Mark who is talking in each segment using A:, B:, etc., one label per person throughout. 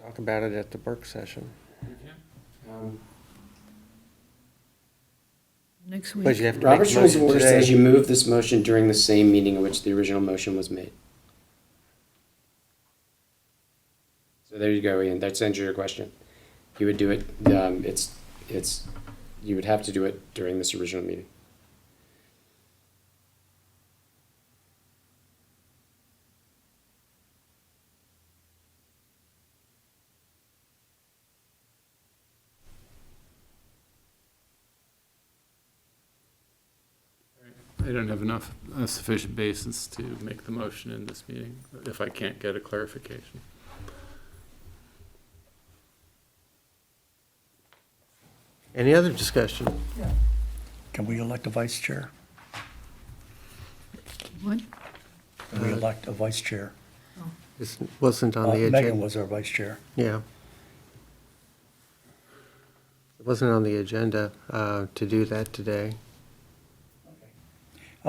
A: Talk about it at the Burke session.
B: We can. Um,
C: Next
A: But you
C: week,
A: have to Um, make
B: Robert's
A: a
B: Rules of
A: motion
B: Order says you
A: today.
B: move this motion during the same meeting in which the original motion was made. So there you go, Ian, that's answered your question. You would do it, um, it's, it's, you would have to do it during this original meeting.
D: I don't have enough, a sufficient basis to make the motion in this meeting, if I can't get a clarification.
A: Any other discussion?
E: Can we elect a vice chair?
C: what?
E: Can we elect a vice chair?
A: This wasn't Uh, on
E: Uh,
A: the
E: Megan
A: agenda.
E: was our vice chair.
A: Yeah. It wasn't on the agenda uh, to do that today.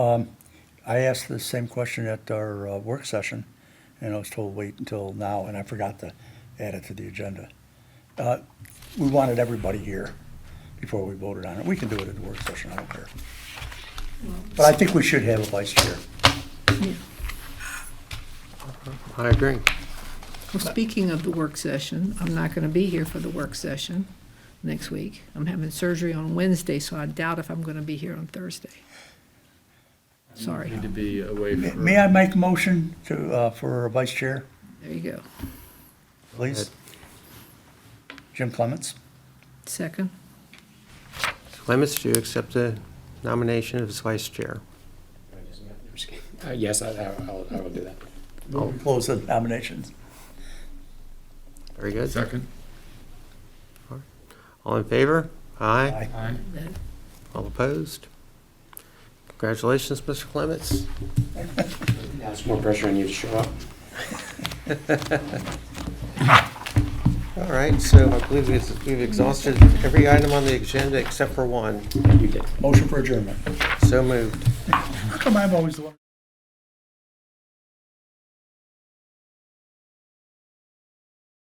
E: I asked the same question at our uh, work session, and I was told wait until now, and I forgot to add it to the agenda. Uh, We wanted everybody here before we voted on it. We can do it at the work session, I don't care. But I think we should have a vice chair.
C: Yeah.
A: I agree.
C: Well, speaking of the work session, I'm not going to be here for the work session next week. I'm having surgery on Wednesday, so I doubt if I'm going to be here on Thursday. Sorry,
D: Need to be away
E: May-
D: from.
E: May I make a motion to, uh, for a vice chair,
C: there you go.
E: please? Jim Clements?
C: Second,
A: Clements, do you accept the nomination as vice chair?
B: Uh, yes, I, I- I'll, I will do that.
A: Oh.
E: We'll Close the nominations.
A: Very good.
D: Second?
A: All in favor? Aye.
E: Aye.
D: Aye.
C: that-
A: All opposed? Congratulations, Mr. Clements.
B: Now it's more pressure on you to show up.
A: All right, so I believe we've we've exhausted every item on the agenda except for one.
B: You did.
E: Motion for adjournment.
A: So moved.
E: How come I'm always the one?